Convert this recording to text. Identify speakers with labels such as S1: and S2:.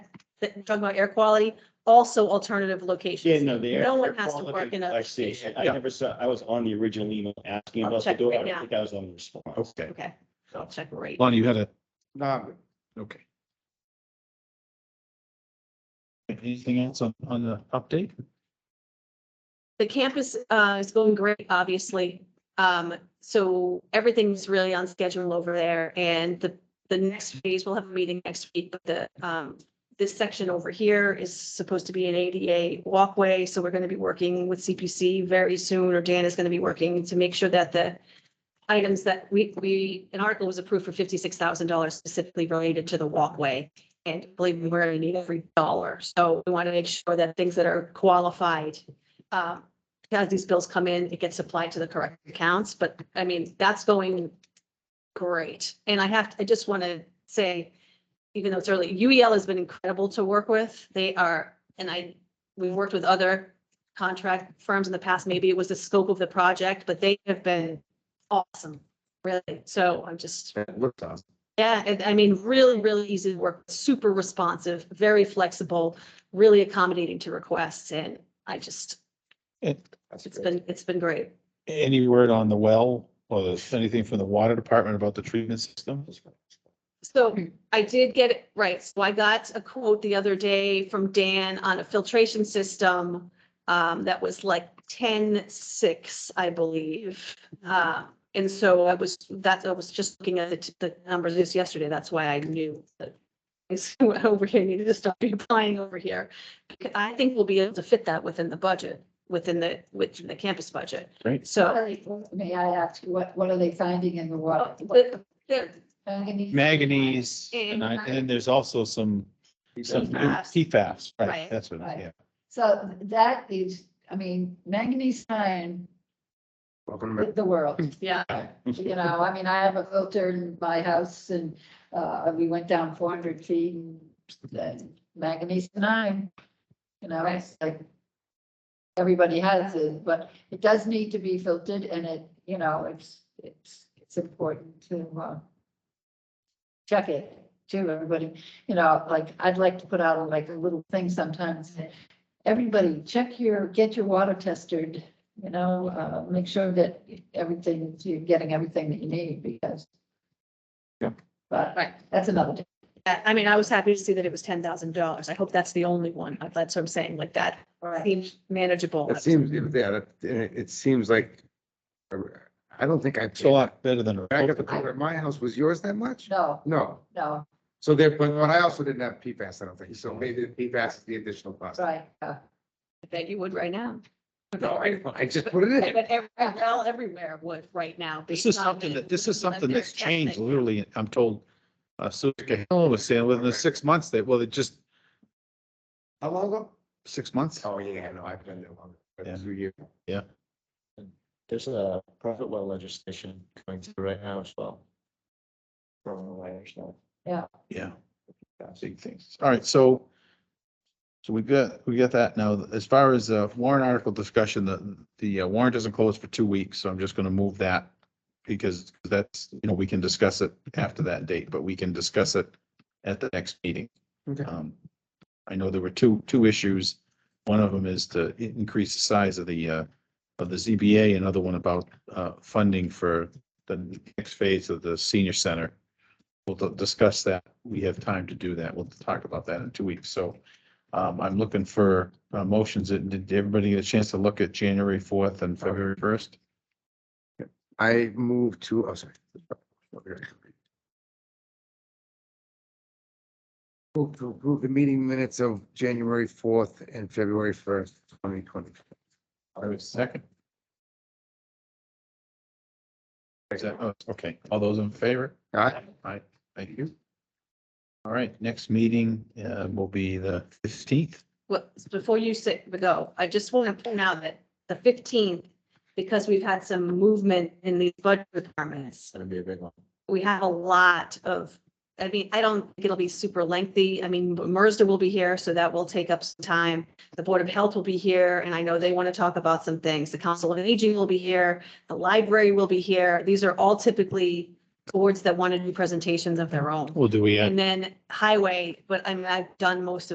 S1: that you're talking about air quality, also alternative
S2: Yeah,
S1: locations.
S2: no, the air.
S1: No one
S2: air
S1: has to
S2: quality-
S1: work in a-
S2: I see. I
S3: Yeah.
S2: never saw, I was on the original email asking
S1: I'll
S2: about the
S1: check
S2: door.
S1: right
S2: I
S1: now.
S2: don't think I was on the response.
S3: Okay.
S1: Okay, I'll check right.
S3: Lonnie, you had a,
S4: No, I'm good.
S3: okay. Anything else on, on the update?
S1: The campus uh is going great, obviously. Um, so everything's really on schedule over there and the, the next phase, we'll have a meeting next week, but the um. This section over here is supposed to be an ADA walkway, so we're gonna be working with CPC very soon, or Dan is gonna be working to make sure that the. Items that we, we, an article was approved for fifty-six thousand dollars specifically related to the walkway. And believe me, we're gonna need every dollar, so we want to make sure that things that are qualified uh, as these bills come in, it gets applied to the correct accounts, but I mean, that's going great. And I have, I just want to say, even though it's early, UEL has been incredible to work with. They are, and I, we've worked with other contract firms in the past, maybe it was the scope of the project, but they have been awesome, really. So I'm just,
S4: It looked awesome.
S1: yeah, and I mean, really, really easy to work, super responsive, very flexible, really accommodating to requests. And I just,
S3: And
S4: That's
S1: it's
S4: great.
S1: been, it's been great.
S3: any word on the well or the- anything from the water department about the treatment system?
S1: So I did get, it right, so I got a quote the other day from Dan on a filtration system um, that was like ten six, I believe. Uh, and so I was, that, I was just looking at the, the numbers just yesterday, that's why I knew that it's over here, needed to stop applying over here. Because I think we'll be able to fit that within the budget, within the, within the campus budget.
S3: Great.
S1: So
S5: May I ask, what, what are they finding in the water?
S1: Oh, the- the-
S5: Manganese?
S3: Manganese,
S1: And-
S3: and I- and there's also some, some
S1: PFAS.
S3: PFAS, right,
S1: Right.
S3: that's what,
S5: Right.
S3: yeah.
S5: So that is, I mean, manganese iron,
S4: Welcome to
S5: the the world.
S1: Yeah,
S5: You know, I mean, I have a filter in my house and, uh, we went down four hundred feet and then manganese and iron. You know, it's like, everybody has it, but it does need to be filtered and it, you know, it's, it's, it's important to, uh, check it too, everybody, you know, like, I'd like to put out like a little thing sometimes. that Everybody, check your, get your water tested, you know, uh, make sure that everything, you're getting everything that you need because.
S3: Yeah.
S5: But
S1: right.
S5: that's another, day.
S1: Yeah, I mean, I was happy to see that it was ten thousand dollars. I hope that's the only one. That's what I'm saying, like that seems manageable.
S4: It seems, yeah, that- it it seems like, uh, I don't think I.
S3: It's a
S5: uh,
S3: lot better than. a-
S4: Back at the corner at my house, was yours that much?
S5: no,
S4: No,
S5: no,
S4: so there, but but I also didn't have PFAS, I don't think, so maybe the PFAS is the additional cost.
S5: right, uh,
S1: I bet you would right now.
S4: No, I, I just put it in.
S1: But every, well, everywhere would right now.
S3: This
S1: based
S3: is
S1: on
S3: something
S1: the-
S3: that, this is something that's
S1: Yeah.
S3: changed literally, I'm told. Uh, Suka Hill was saying within the six months that, well, it just,
S4: How long ago?
S3: six months?
S4: Oh, yeah, no, I've been there longer,
S3: Yeah.
S4: but two years.
S6: There's a private well legislation going through right now as well. From the way I understand.
S3: Yeah. Big things. All right, so. So we got, we got that now. As far as uh, warrant article discussion, the, the uh, warrant doesn't close for two weeks, so I'm just gonna move that. Because that's, you know, we can discuss it after that date, but we can discuss it at the next meeting.
S4: Okay.
S3: Um, I know there were two, two issues. One of them is to i- increase the size of the, uh, of the ZBA, another one about, uh, funding for the next phase of the senior center. We'll d- discuss that. We have time to do that. We'll talk about that in two weeks. So, um, I'm looking for, uh, motions. Did did everybody get a chance to look at January fourth and February first?
S4: I moved to, oh, sorry. Move to approve the meeting minutes of January fourth and February first, twenty twenty.
S3: I was second. Is that, oh, okay. All those in favor?
S4: All right,
S3: Thank you. All right, next meeting uh, will be the fifteenth.
S1: Well, before you sit, go, I just want to point out that the fifteenth, because we've had some movement in these budget departments,
S6: Gonna be a big one.
S1: we have a lot of, I mean, I don't think it'll be super lengthy. I mean, MERSDA will be here, so that will take up some time. The Board of Health will be here, and I know they want to talk about some things. The Council of Aging will be here, the library will be here. These are all typically boards that want to do presentations of their own.
S3: Well, do we have
S1: And then highway, but I mean, I've done most of.